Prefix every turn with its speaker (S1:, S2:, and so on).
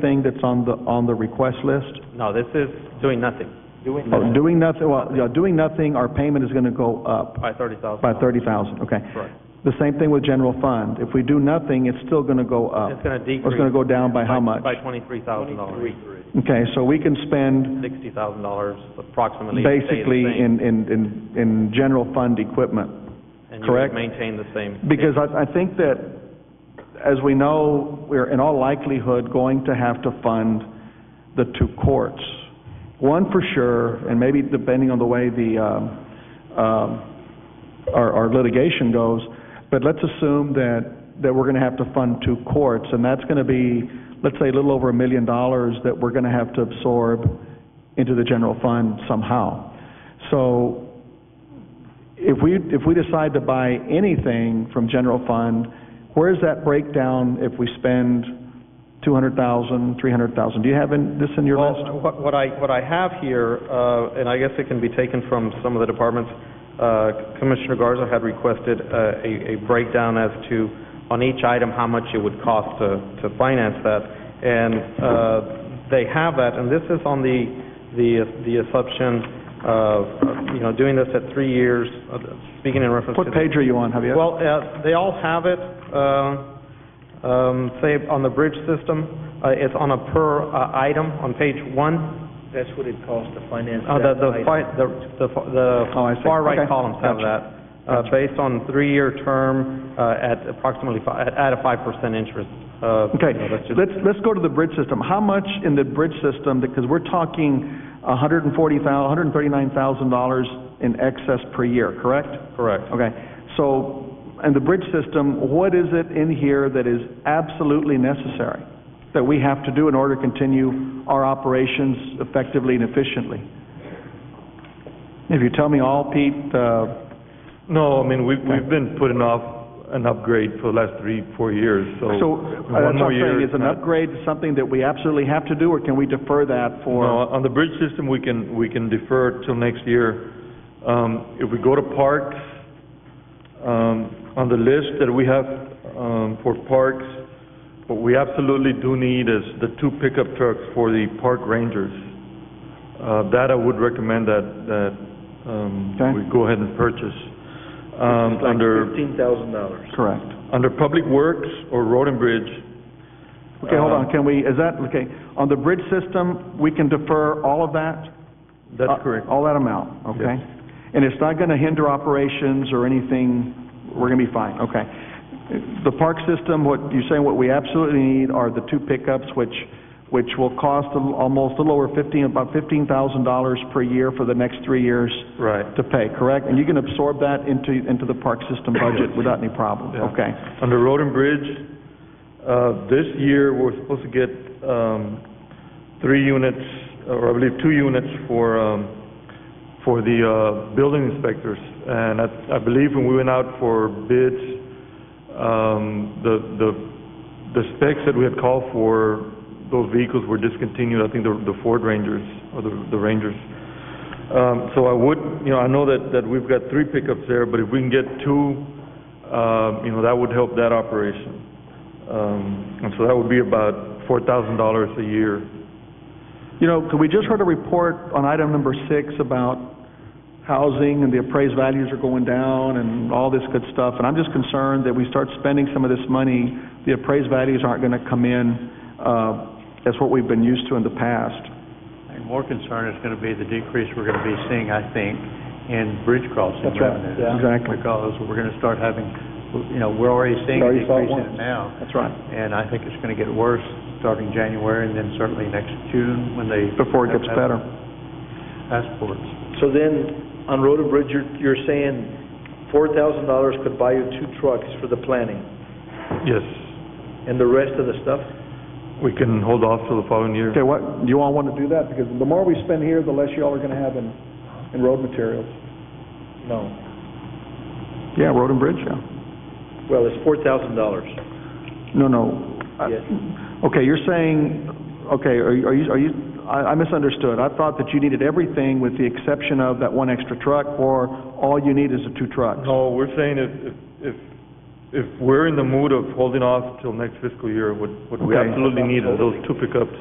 S1: thing that's on the, on the request list?
S2: No, this is doing nothing. Doing
S1: Oh, Doing nothing, well, yeah, doing nothing, our payment is gonna go up
S2: By thirty thousand.
S1: by thirty thousand, okay?
S2: Correct.
S1: The same thing with general fund. If we do nothing, it's still gonna go up.
S2: It's gonna decrease.
S1: Or It's gonna go down by how much?
S2: By twenty-three thousand dollars.
S1: Okay, so we can spend
S2: Sixty thousand dollars approximately. to stay the
S1: basically
S2: same.
S1: in, in, in, in general fund equipment.
S2: And you would
S1: correct?
S2: maintain the same.
S1: Because I, I think that, as we know, we're in all likelihood going to have to fund the two courts. One for sure, and maybe depending on the way the, um, um, our, our litigation goes, but let's assume that, that we're gonna have to fund two courts, and that's gonna be, let's say, a little over a million dollars that we're gonna have to absorb into the general fund somehow. So, if we, if we decide to buy anything from general fund, where's that breakdown if we spend two hundred thousand, three hundred thousand? Do you have in- this in your
S2: Well,
S1: list?
S2: what- what I, what I have here, uh, and I guess it can be taken from some of the departments, uh, Commissioner Garza had requested uh, a a breakdown as to, on each item, how much it would cost to to finance that, and uh, they have that, and this is on the, the the assumption of, you know, doing this at three years, uh, speaking in reference to...
S1: What
S2: the-
S1: page are you on, Javier?
S2: well, uh, they all have it, uh, um, say, on the bridge system, uh, it's on a per uh, item on page one.
S3: That's what it costs to finance
S2: Uh, The,
S3: that
S2: the
S3: item.
S2: fi- the, the fa- the
S1: Oh, I see.
S2: far right
S1: Okay.
S2: columns have
S1: Gotcha.
S2: that, uh, based on three-year term uh, at approximately, fi- at at a five percent interest. uh,
S1: Okay,
S2: you know, that's just-
S1: let's, let's go to the bridge system. How much in the bridge system, because we're talking a hundred and forty thou, hundred and thirty-nine thousand dollars in excess per year, correct?
S2: Correct.
S1: Okay, so, and the bridge system, what is it in here that is absolutely necessary? That we have to do in order to continue our operations effectively and efficiently? If you tell me all, Pete, uh,
S4: No, I mean, we've, we've been putting off an upgrade for the last three, four years, so.
S1: so, uh,
S4: one
S1: that's
S4: more
S1: what I'm
S4: year.
S1: saying, is an upgrade something that we absolutely have to do, or can we defer that for?
S4: No, on the bridge system, we can, we can defer till next year. Um, if we go to parks, um, on the list that we have, um, for parks, what we absolutely do need is the two pickup trucks for the park rangers. Uh, that I would recommend that, that, um,
S1: Okay.
S4: we go ahead and purchase. Um,
S3: Like
S4: under.
S3: fifteen thousand dollars.
S1: Correct.
S4: Under Public Works or Road and Bridge,
S1: Okay, hold on,
S4: Uh,
S1: can we, is that, okay, on the bridge system, we can defer all of that? Uh,
S4: that's correct.
S1: All that amount, okay?
S4: Yes.
S1: And it's not gonna hinder operations or anything, we're gonna be fine, okay? The park system, what, you're saying what we absolutely need are the two pickups, which, which will cost a- almost a little over fifteen, about fifteen thousand dollars per year for the next three years
S4: Right.
S1: to pay, correct? And you can absorb that into, into the park system budget without any problem,
S4: Yeah.
S1: okay?
S4: Under Road and Bridge, uh, this year, we're supposed to get, um, three units, or I believe two units for, um, for the, uh, building inspectors. And I, I believe when we went out for bids, um, the, the, the specs that we had called for, those vehicles were discontinued, I think the, the Ford Rangers, or the, the Rangers. Um, so I would, you know, I know that, that we've got three pickups there, but if we can get two, um, you know, that would help that operation. Um, and so that would be about four thousand dollars a year.
S1: You know, 'cause we just heard a report on item number six about housing and the appraised values are going down and all this good stuff, and I'm just concerned that we start spending some of this money, the appraised values aren't gonna come in, uh, as what we've been used to in the past.
S5: And more concern is going to be the decrease we're going to be seeing, I think, in bridge crossing
S1: That's right,
S5: revenues.
S1: yeah. Exactly.
S5: Because we're going to start having, you know, we're already seeing a
S1: Already saw it
S5: decrease in it
S1: once.
S5: now.
S1: That's right.
S5: And I think it's going to get worse starting January and then certainly next June when they.
S1: Before it gets better.
S5: Passports.
S3: So then, on Road and Bridge, you're, you're saying four thousand dollars could buy you two trucks for the planning,
S4: Yes,
S3: and the rest of the stuff?
S4: we can hold off till the following year.
S1: Okay, what, do you all wanna do that? Because the more we spend here, the less y'all are gonna have in, in road materials.
S3: No.
S1: Yeah, road and bridge, yeah.
S3: Well, it's four thousand dollars.
S1: No, no. I-
S3: Yes.
S1: Okay, you're saying, okay, are you- are you, are you, I I misunderstood. I thought that you needed everything with the exception of that one extra truck, or all you need is the two trucks?
S4: No, we're saying if, if, if if we're in the mood of holding off till next fiscal year, what, what we
S1: Okay.
S4: absolutely need is those two pickups.